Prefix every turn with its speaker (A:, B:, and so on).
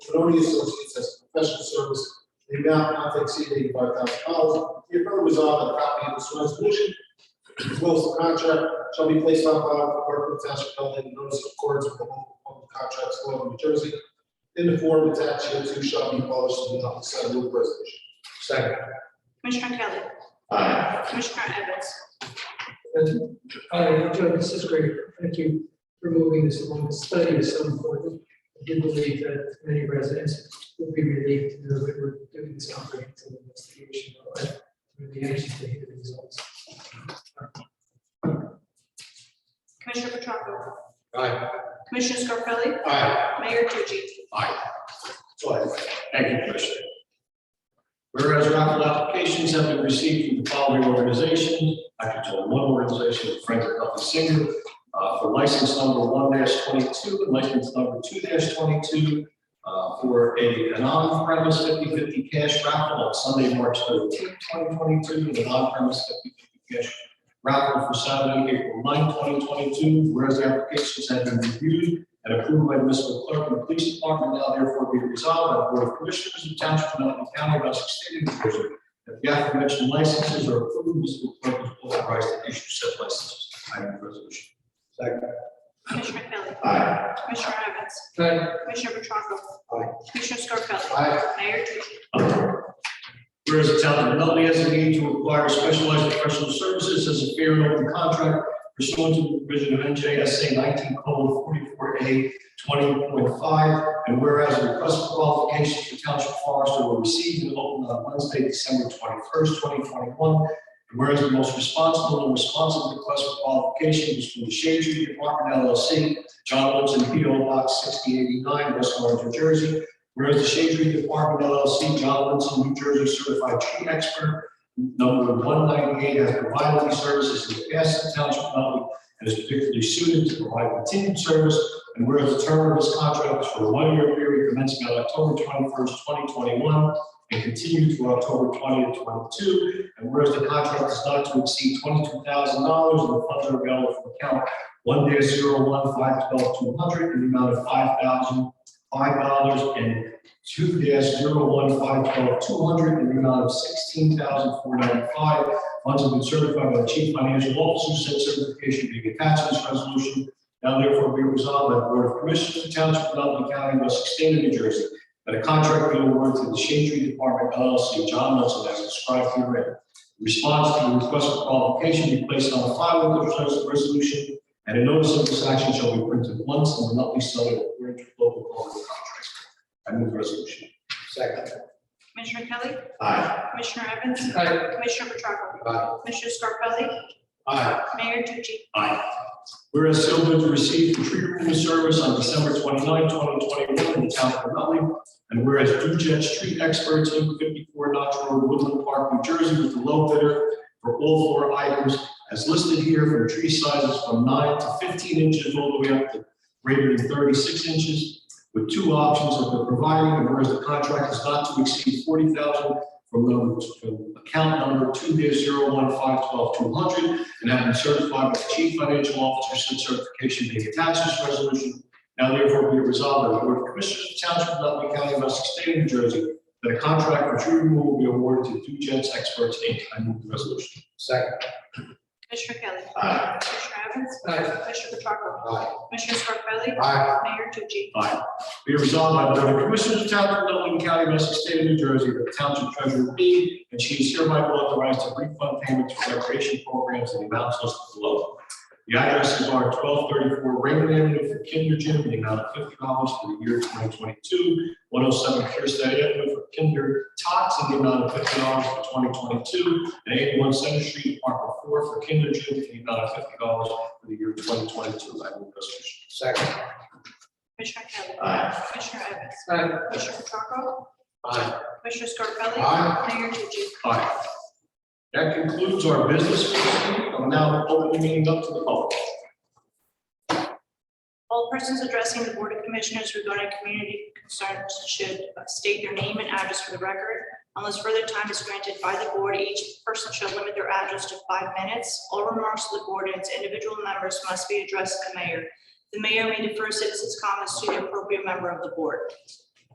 A: Benoni Associates as a professional service, in the amount not to exceed eighty-five thousand dollars. Be it further resolved that a copy of this resolution, as well as the contract, shall be placed on file with the clerk of the township of Nutley, and notice of accordance with the local public contracts law of New Jersey, in the form attached hereto shall be published in the Nutley Sun News Resolution. Second.
B: Commissioner Kelly.
A: Aye.
B: Commissioner Evans.
C: And I enjoyed, this is great, thank you for moving this along, this study is so important. I do believe that many residents will be relieved to know that we're doing this comprehensive investigation. I'm Really anxious to hear the results.
B: Commissioner Petracca. Aye. Commissioner Scarpelli.
A: Aye.
B: Mayor Tucci.
A: So I-
D: Thank you, Commissioner. Whereas raffle applications have been received from the following organizations, I can tell one organization, Franklin Duffy Singer, uh, for license number one twenty-two and license number two twenty-two, uh, for a an on-premise 50-50 cash raffle on Sunday, March thirteenth, twenty twenty-two, and an on-premise 50-50 cash raffle for Saturday, April 9, twenty twenty-two. Whereas the applications have been reviewed and approved by the municipal clerk and the police department, now therefore be resolved by the Board of Commissioners of Township of Nutley County of Essex State of New Jersey. That the aforementioned licenses are approved, municipal clerk is authorized to issue said licenses. I move the resolution.
B: Commissioner Kelly.
A: Aye.
B: Commissioner Evans.
C: But
B: Commissioner Petracca.
A: Aye.
B: Commissioner Scarpelli.
A: Aye.
B: Mayor Tucci.
D: Whereas the town of Nutley has a need to acquire specialized professional services as a fair and open contract pursuant to the provision of NJSA nineteen forty-four A twenty point five. And whereas the request for qualifications for township forester were received and opened on Wednesday, December twenty-first, twenty twenty-one. And whereas the most responsible and responsive request for qualification was from the Shade Tree Department LLC, John Woodson, P O Box sixty eighty-nine, West Orange, New Jersey, Whereas the Shade Tree Department LLC, John Linson, New Jersey Certified Tree Expert, number one ninety-eight, has provided these services in the past to the township of Nutley and is particularly suited to provide continued service. And whereas the term of this contract is for a one-year period commencing on October twenty-first, twenty twenty-one, and continue through October twentieth, twenty-two. And whereas the contract is not to exceed twenty-two thousand dollars, and the funds are available from account one dash zero one five twelve two hundred in the amount of five thousand five dollars and two dash zero one five twelve two hundred in the amount of sixteen thousand four ninety-five. Funds have been certified by the chief financial officer, said certification being attached to this resolution. Now therefore be resolved by the Board of Commissioners of the Township of Nutley County, Essex State of New Jersey, that a contract be awarded to the Shade Tree Department LLC, John Nelson, as described herein. Response to the request for qualification be placed on file with the resolution and a notice of this action shall be printed once and will not be subject to according to local public contracts. I move the resolution.
A: Second.
B: Commissioner Kelly.
A: Aye.
B: Commissioner Evans.
C: I,
B: Commissioner Petracca.
A: Aye.
B: Commissioner Scarpelli.
A: Aye.
B: Mayor Tucci.
D: Aye. Whereas Sylvan received the tree removal service on December 29, 2021 in the town of Nutley, and whereas Dujet Street Experts, Inc., 54 Notch Road, Woodland Park, New Jersey, with the low bidder for all four items as listed here from tree sizes from 9 to 15 inches all the way up to greater than 36 inches, with two options of the providing, and whereas the contract is not to exceed 40,000 from number- from account number 2001512 and have been certified by the chief financial officer since certification being attached to this resolution. Now therefore be it resolved by the Board of Commissioners of the Township of Nutley County of Essex State of New Jersey that a contract for tree removal will be awarded to Dujets Experts Inc. I move the resolution.
A: Second.
B: Commissioner Kelly.
A: Aye.
B: Commissioner Evans.
C: I,
B: Commissioner Petracca.
A: Aye.
B: Commissioner Scarpelli.
A: Aye.
B: Mayor Tucci.
D: Be it resolved by the Board of Commissioners of the Township of Nutley County of Essex State of New Jersey that the Township Treasurer be and she is hereby authorized to refund payments for recreation programs in the amounts listed below. The addresses are twelve thirty-four Raymond Avenue for Kinder Gym in the amount of fifty dollars for the year twenty twenty-two, one oh seven Kirsten Avenue for Kinder Tots in the amount of fifty dollars for twenty twenty-two, and eighty-one Center Street, Apartment Four for Kinder Gym in the amount of fifty dollars for the year twenty twenty-two. I move the resolution.
A: Second.
B: Commissioner Kelly.
A: Aye.
B: Commissioner Evans.
C: I,
B: Commissioner Petracca.
A: Aye.
B: Commissioner Scarpelli.
A: Aye.
B: Mayor Tucci.
D: Aye. That concludes our business. for the meeting. I'm now opening the meeting up to the public.
B: All persons addressing the Board of Commissioners regarding community concerns should uh, state their name and address for the record. Unless further time is granted by the board, each person should limit their address to five minutes. All remarks to the board and its individual members must be addressed to the mayor. The mayor may defer citizens' comments to the appropriate member of the board.